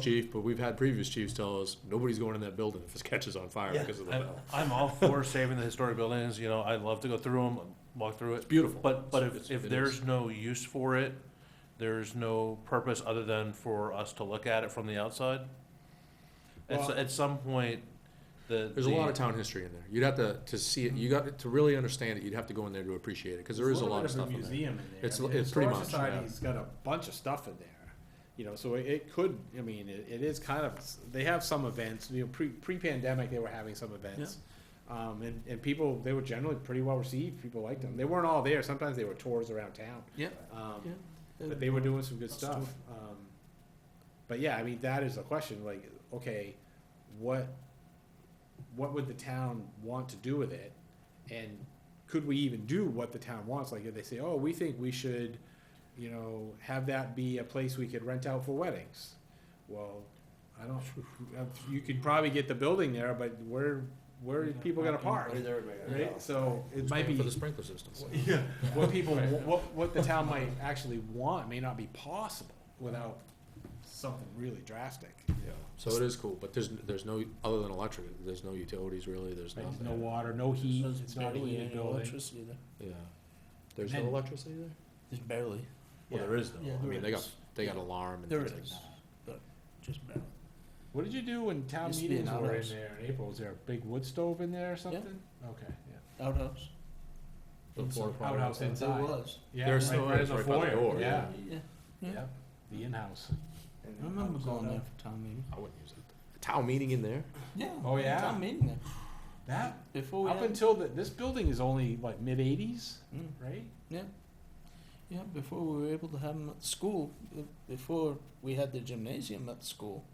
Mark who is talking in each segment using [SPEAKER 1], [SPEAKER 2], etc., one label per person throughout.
[SPEAKER 1] chief, but we've had previous chiefs tell us, nobody's going in that building if it catches on fire
[SPEAKER 2] Yeah.
[SPEAKER 1] because of the
[SPEAKER 3] I'm,
[SPEAKER 1] valve.
[SPEAKER 3] I'm all for saving the historic buildings, you know, I love to go through them, walk through it.
[SPEAKER 1] beautiful.
[SPEAKER 3] But, but
[SPEAKER 1] It's-
[SPEAKER 3] if,
[SPEAKER 1] it
[SPEAKER 3] if
[SPEAKER 1] is.
[SPEAKER 3] there's no use for it, there's no purpose other than for us to look at it from the outside. At, s-
[SPEAKER 2] Well-
[SPEAKER 3] at some point, the.
[SPEAKER 1] There's a lot of
[SPEAKER 3] the-
[SPEAKER 1] town history in there. You'd have to, to see it, you got, to really understand it, you'd have to go in there to appreciate it, because there is a lot of stuff in there.
[SPEAKER 2] Museum in there.
[SPEAKER 1] It's-
[SPEAKER 2] I mean,
[SPEAKER 1] it's pretty
[SPEAKER 2] Historic
[SPEAKER 1] much, yeah.
[SPEAKER 2] Society's got a bunch of stuff in there, you know, so it- it could, I mean, it, it is kind of, they have some events, you know, pre, pre-pandemic, they were having some events. Um, and, and people, they were generally pretty well received, people liked them, they weren't all there, sometimes they were tours around town.
[SPEAKER 1] Yeah.
[SPEAKER 2] Um,
[SPEAKER 1] Yeah.
[SPEAKER 2] but they were doing some good stuff. Um, but yeah, I mean, that is the question, like, okay, what, what would the town want to do with it? And could we even do what the town wants? Like, if they say, oh, we think we should, you know, have that be a place we could rent out for weddings. Well, I don't, you could probably get the building there, but where, where are people gonna park? Right, so it might be.
[SPEAKER 1] For the sprinkler system.
[SPEAKER 2] Yeah, what people, what, what the town might actually want may not be possible without something really drastic.
[SPEAKER 1] So it is cool, but there's, there's no, other than electric, there's no utilities really, there's
[SPEAKER 2] Like,
[SPEAKER 1] nothing.
[SPEAKER 2] no water, no heat, it's not a heated building.
[SPEAKER 4] there.
[SPEAKER 1] Yeah. There's no
[SPEAKER 4] And-
[SPEAKER 1] electricity there?
[SPEAKER 4] There's barely.
[SPEAKER 1] Well, there is though.
[SPEAKER 4] Yeah,
[SPEAKER 1] I
[SPEAKER 4] there
[SPEAKER 1] mean, they got,
[SPEAKER 4] is.
[SPEAKER 1] they got alarm and
[SPEAKER 4] There
[SPEAKER 1] things like
[SPEAKER 4] is,
[SPEAKER 1] that.
[SPEAKER 4] but just barely.
[SPEAKER 2] What did you do when town
[SPEAKER 4] Used to be
[SPEAKER 2] meetings
[SPEAKER 4] an
[SPEAKER 2] were in
[SPEAKER 4] outhouse.
[SPEAKER 2] there in April? Was there a big wood stove in there or something? Okay, yeah.
[SPEAKER 4] Outhouse.
[SPEAKER 1] The
[SPEAKER 2] Inside.
[SPEAKER 1] porta potty
[SPEAKER 2] Outhouse
[SPEAKER 1] outside.
[SPEAKER 2] inside.
[SPEAKER 4] There was.
[SPEAKER 2] yeah.
[SPEAKER 1] There's
[SPEAKER 2] right-
[SPEAKER 1] still
[SPEAKER 2] right in
[SPEAKER 1] is
[SPEAKER 2] the
[SPEAKER 1] right by the
[SPEAKER 2] foyer,
[SPEAKER 1] door,
[SPEAKER 2] Oh, Yeah,
[SPEAKER 4] Yeah. yeah.
[SPEAKER 2] yeah, the in-house.
[SPEAKER 4] I remember going there for town meeting.
[SPEAKER 1] I wouldn't use it. A town meeting in there?
[SPEAKER 4] Yeah.
[SPEAKER 2] Oh, yeah.
[SPEAKER 4] Town meeting there.
[SPEAKER 2] That,
[SPEAKER 1] Oh,
[SPEAKER 4] Before we
[SPEAKER 2] up
[SPEAKER 4] had,
[SPEAKER 2] until, the- this building is only like mid-eighties,
[SPEAKER 4] Mm.
[SPEAKER 2] right?
[SPEAKER 4] yeah, before we were able to have them at the school, b- before we had the gymnasium at the school,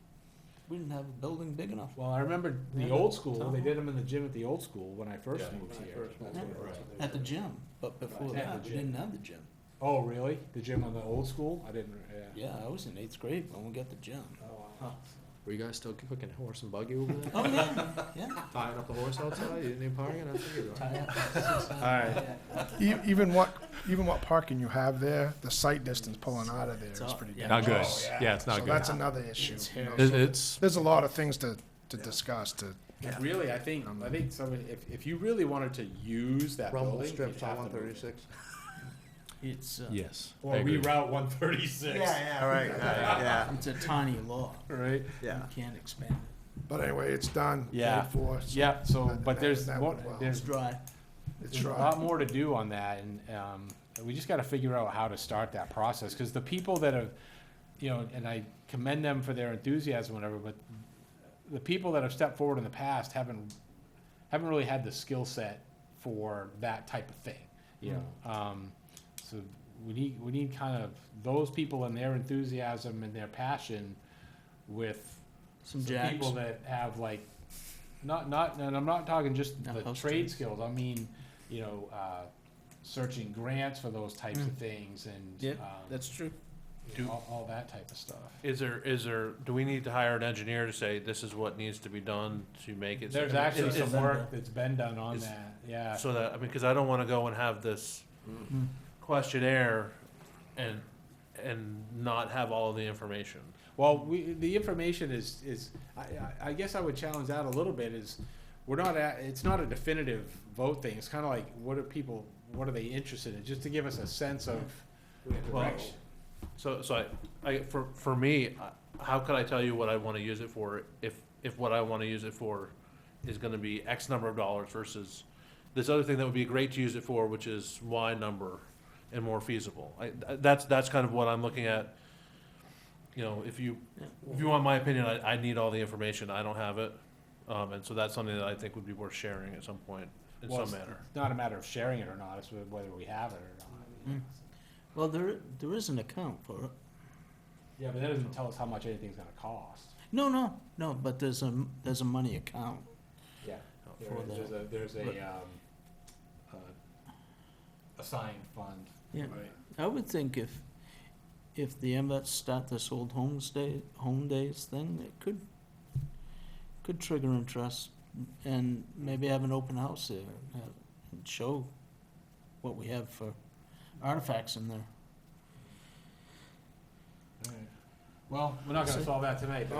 [SPEAKER 4] we didn't have a building big enough.
[SPEAKER 2] Well, I remember the
[SPEAKER 4] Yeah.
[SPEAKER 2] old school,
[SPEAKER 4] Town
[SPEAKER 2] they
[SPEAKER 4] hall.
[SPEAKER 2] did them in the gym at the old school when I first
[SPEAKER 1] Yeah.
[SPEAKER 2] moved
[SPEAKER 1] When I
[SPEAKER 2] here.
[SPEAKER 1] first
[SPEAKER 4] moved here.
[SPEAKER 1] Right.
[SPEAKER 4] At the gym, but before
[SPEAKER 2] Right, at
[SPEAKER 4] that,
[SPEAKER 2] the
[SPEAKER 4] we
[SPEAKER 2] gym.
[SPEAKER 4] didn't have the gym.
[SPEAKER 2] Oh, really? The gym on the old school? I didn't. Yeah.
[SPEAKER 4] Yeah, I was in eighth grade when we got the gym.
[SPEAKER 2] Oh,
[SPEAKER 4] wow.
[SPEAKER 1] Were you guys still cooking horse and buggy over there?
[SPEAKER 4] Oh, yeah, yeah.
[SPEAKER 1] Tying up the horse outside? You didn't even party? I figured.
[SPEAKER 4] All
[SPEAKER 2] right.
[SPEAKER 5] E- Even what, even what parking you have there, the sight distance pulling out of there is pretty good.
[SPEAKER 1] Not good. Yeah, it's
[SPEAKER 5] So that's another issue. you
[SPEAKER 4] uh,
[SPEAKER 5] know, so
[SPEAKER 1] It's,
[SPEAKER 5] There's a lot of things to, to discuss to,
[SPEAKER 2] But Really, I think
[SPEAKER 5] Um,
[SPEAKER 2] I think somebody if, if you really wanted to use that building, you'd have to move it.
[SPEAKER 4] It's, uh,
[SPEAKER 1] yes.
[SPEAKER 2] or reroute 136.
[SPEAKER 6] yeah. All right, all right, yeah,
[SPEAKER 4] it's a tiny lot.
[SPEAKER 2] Right.
[SPEAKER 6] yeah.
[SPEAKER 4] You can't expand it.
[SPEAKER 5] but anyway, it's done.
[SPEAKER 2] Yeah.
[SPEAKER 5] paid for, so
[SPEAKER 2] Yeah. So, but
[SPEAKER 5] That-
[SPEAKER 2] there's
[SPEAKER 5] that
[SPEAKER 2] more,
[SPEAKER 5] would help.
[SPEAKER 4] It's
[SPEAKER 2] there's,
[SPEAKER 4] dry.
[SPEAKER 5] It's
[SPEAKER 2] there's a
[SPEAKER 5] right.
[SPEAKER 2] lot more to do on that, and um, we just got to figure out how to start that process because the people that have, you know, and I commend them for their enthusiasm, whatever. But the people that have stepped forward in the past haven't haven't really had the skill set for that type of thing, you know. Um, so we need we need kind of those people and their enthusiasm and their passion with
[SPEAKER 4] Some
[SPEAKER 2] the
[SPEAKER 4] jacks.
[SPEAKER 2] people that have like not not and I'm not talking just
[SPEAKER 4] No,
[SPEAKER 2] the
[SPEAKER 4] post
[SPEAKER 2] trade
[SPEAKER 4] trades.
[SPEAKER 2] skills. I mean, you know, uh, searching grants for those types of things and
[SPEAKER 4] Mm. Yeah,
[SPEAKER 2] um,
[SPEAKER 4] That's true.
[SPEAKER 2] you know, all, all that type of stuff.
[SPEAKER 3] Is there, is there, do we need to hire an engineer to say this is what needs to be done to make it?
[SPEAKER 2] There's
[SPEAKER 3] I mean,
[SPEAKER 2] actually
[SPEAKER 3] is- is-
[SPEAKER 2] some work that's been done on
[SPEAKER 3] is-
[SPEAKER 2] that. Yeah.
[SPEAKER 3] So that, I mean, cause I don't wanna go and have this questionnaire and, and not have all of the information.
[SPEAKER 2] Well, we, the information is, is, I, I- I guess I would challenge that a little bit is, we're not at, it's not a definitive vote thing. It's kinda like, what are people, what are they interested in? Just to give us a sense of direction.
[SPEAKER 3] So, so I, I, for, for me, I- how could I tell you what I wanna use it for if, if what I wanna use it for is gonna be X number of dollars versus this other thing that would be great to use it for, which is Y number and more feasible? I, that's, that's kind of what I'm looking at. You know, if you, if you want my opinion, I, I need all the information, I don't have it. Um, and so that's something that I think would be worth sharing at some point, in
[SPEAKER 2] Well,
[SPEAKER 3] some
[SPEAKER 2] it's-
[SPEAKER 3] manner.
[SPEAKER 2] It's not a matter of sharing it or not, it's whether we have it or not.
[SPEAKER 4] Mm. Well, there, i- there is an account for it.
[SPEAKER 2] Yeah, but that doesn't tell us how much anything's gonna cost.
[SPEAKER 4] No, no, no, but there's a, m- there's a money account.
[SPEAKER 2] Yeah.
[SPEAKER 4] For the-
[SPEAKER 2] There's a, there's
[SPEAKER 4] but-
[SPEAKER 2] a, um, uh, assigned fund.
[SPEAKER 4] Yeah. I would think if, if the MVets start this old homes day, home days thing, it could, could trigger interest and maybe have an open house there and have- and show what we have for artifacts in there.
[SPEAKER 2] Well, we're not gonna
[SPEAKER 4] So-
[SPEAKER 2] solve that tonight, but